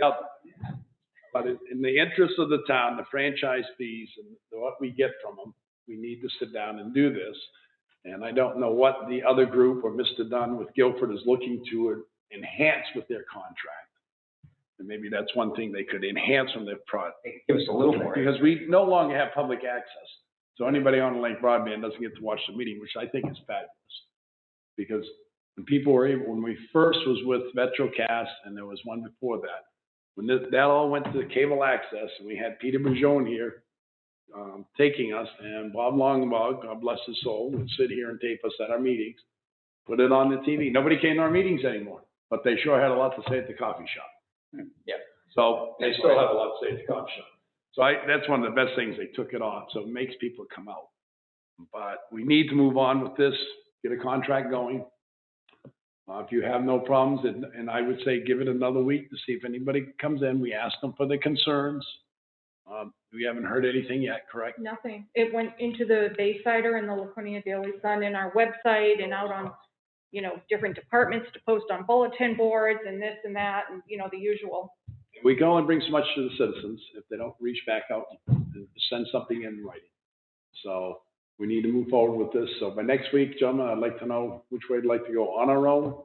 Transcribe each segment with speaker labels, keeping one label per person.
Speaker 1: cover. But in, in the interest of the town, the franchise fees and what we get from them, we need to sit down and do this. And I don't know what the other group or Mr. Dunn with Guilford is looking to enhance with their contract. And maybe that's one thing they could enhance from their product.
Speaker 2: Give us a little more.
Speaker 1: Because we no longer have public access. So anybody on Lake Broadband doesn't get to watch the meeting, which I think is fabulous. Because when people were able, when we first was with MetroCast and there was one before that, when that, that all went to cable access and we had Peter Bujone here, um, taking us and Bob Longbaugh, God bless his soul, would sit here and tape us at our meetings, put it on the TV. Nobody came to our meetings anymore, but they sure had a lot to say at the coffee shop.
Speaker 2: Yeah.
Speaker 1: So they still have a lot to say at the coffee shop. So I, that's one of the best things, they took it off, so it makes people come out. But we need to move on with this, get a contract going. Uh, if you have no problems, and, and I would say give it another week to see if anybody comes in, we ask them for their concerns. Um, we haven't heard anything yet, correct?
Speaker 3: Nothing. It went into the Baysider and the Laconia Daily Sun and our website and out on, you know, different departments to post on bulletin boards and this and that and, you know, the usual.
Speaker 1: We can only bring so much to the citizens if they don't reach back out and send something in writing. So we need to move forward with this. So by next week, gentlemen, I'd like to know which way I'd like to go on our own.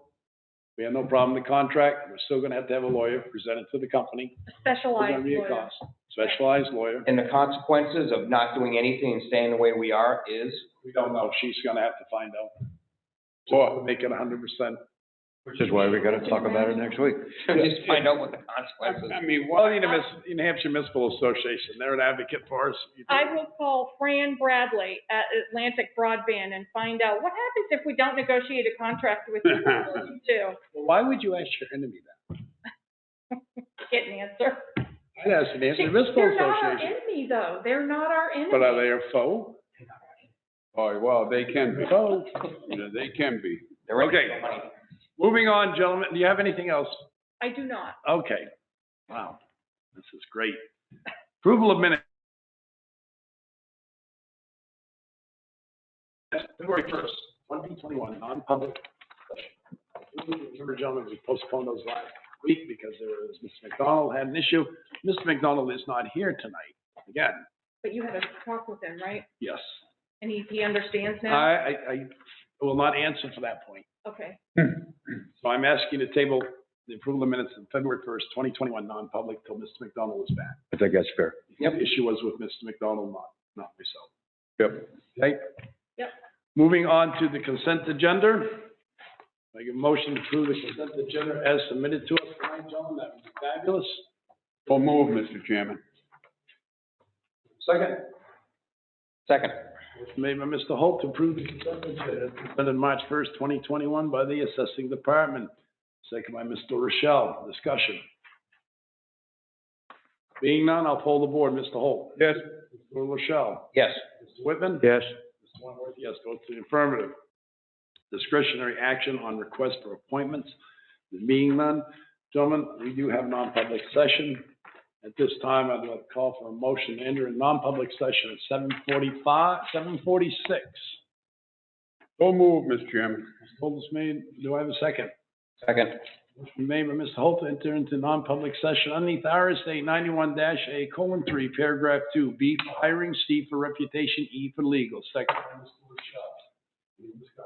Speaker 1: We have no problem with the contract. We're still gonna have to have a lawyer present it to the company.
Speaker 3: A
Speaker 1: There's gonna
Speaker 3: Specialized
Speaker 1: be a
Speaker 3: lawyer.
Speaker 1: cost. Specialized lawyer.
Speaker 2: And the consequences of not doing anything and staying the way we are is,
Speaker 1: We don't know. She's gonna have to find out. Or make it hundred percent.
Speaker 4: Which is why we gotta talk about it next week.
Speaker 2: just find out what the
Speaker 1: I
Speaker 2: consequences.
Speaker 1: mean, well, the Miss- New Hampshire Municipal Association, they're an advocate for us. You
Speaker 3: I
Speaker 1: think-
Speaker 3: will call Fran Bradley at Atlantic Broadband and find out what happens if we don't negotiate a contract with you to
Speaker 1: Well, Why would you ask your enemy that?
Speaker 3: get an answer.
Speaker 1: I'd ask the New Hampshire Municipal
Speaker 3: They're not our
Speaker 1: Association.
Speaker 3: enemy though. They're not our
Speaker 1: But are
Speaker 3: enemy.
Speaker 1: they a foe?
Speaker 4: Oh, well, they can be,
Speaker 1: Foe.
Speaker 4: they can be.
Speaker 2: They're
Speaker 1: Okay.
Speaker 2: making money.
Speaker 1: Moving on, gentlemen, do you have anything else?
Speaker 3: I do not.
Speaker 1: Okay. Wow, this is great. Approval of minutes. February first, twenty twenty-one, non-public. session. Remember, gentlemen, we postponed those last week because there was, Ms. McDonald had an issue. Mr. McDonald is not here tonight. Again,
Speaker 3: But you had a talk with him, right?
Speaker 1: yes.
Speaker 3: And he, he understands
Speaker 1: I,
Speaker 3: now?
Speaker 1: I, I will not answer for that point.
Speaker 3: Okay.
Speaker 1: So I'm asking to table the approval of minutes of February first, twenty twenty-one, non-public till Mr. McDonald is back.
Speaker 4: I think that's fair.
Speaker 1: The issue was with Mr. McDonald, not, not myself.
Speaker 4: Yep.
Speaker 1: Okay?
Speaker 3: Yep.
Speaker 1: Moving on to the consent agenda. Make a motion to approve the consent agenda as submitted to us tonight, John, that would be fabulous.
Speaker 4: Full move, Mr. Chairman.
Speaker 1: Second.
Speaker 2: Second,
Speaker 1: Made by Mr. Holt to approve the consent agenda as presented March first, twenty twenty-one by the assessing department. Second by Mr. Rochelle, discussion. Being none, I'll poll the board, Mr. Holt.
Speaker 4: Yes.
Speaker 1: Mr. Rochelle.
Speaker 2: yes.
Speaker 1: Mr. Whitman.
Speaker 4: Yes.
Speaker 1: Mr. Wentworth, yes, votes in the affirmative. Discretionary action on request for appointments, there being none. Gentlemen, we do have non-public session. At this time, I'd like to call for a motion to enter a non-public session at seven forty-five, seven forty-six.
Speaker 4: Full move, Mr. Chairman.
Speaker 1: Hold this made, do I have a second?
Speaker 2: Second,
Speaker 1: Motion made by Mr. Holt to enter into non-public session underneath RSA ninety-one A colon three, paragraph two, B for hiring, C for reputation, E for legal, second by Mr. Rochelle. Any discussion?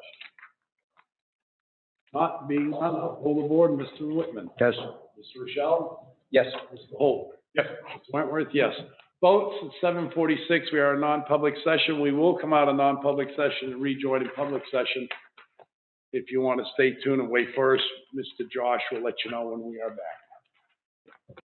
Speaker 1: Not being none, I'll poll the board, Mr. Whitman.
Speaker 4: Yes.
Speaker 1: Mr. Rochelle?
Speaker 2: yes.
Speaker 1: Mr. Holt? Yes. Wentworth, yes. Votes at seven forty-six, we are in non-public session. We will come out of non-public session and rejoin in public session. If you want to stay tuned and wait for us, Mr. Josh will let you know when we are back.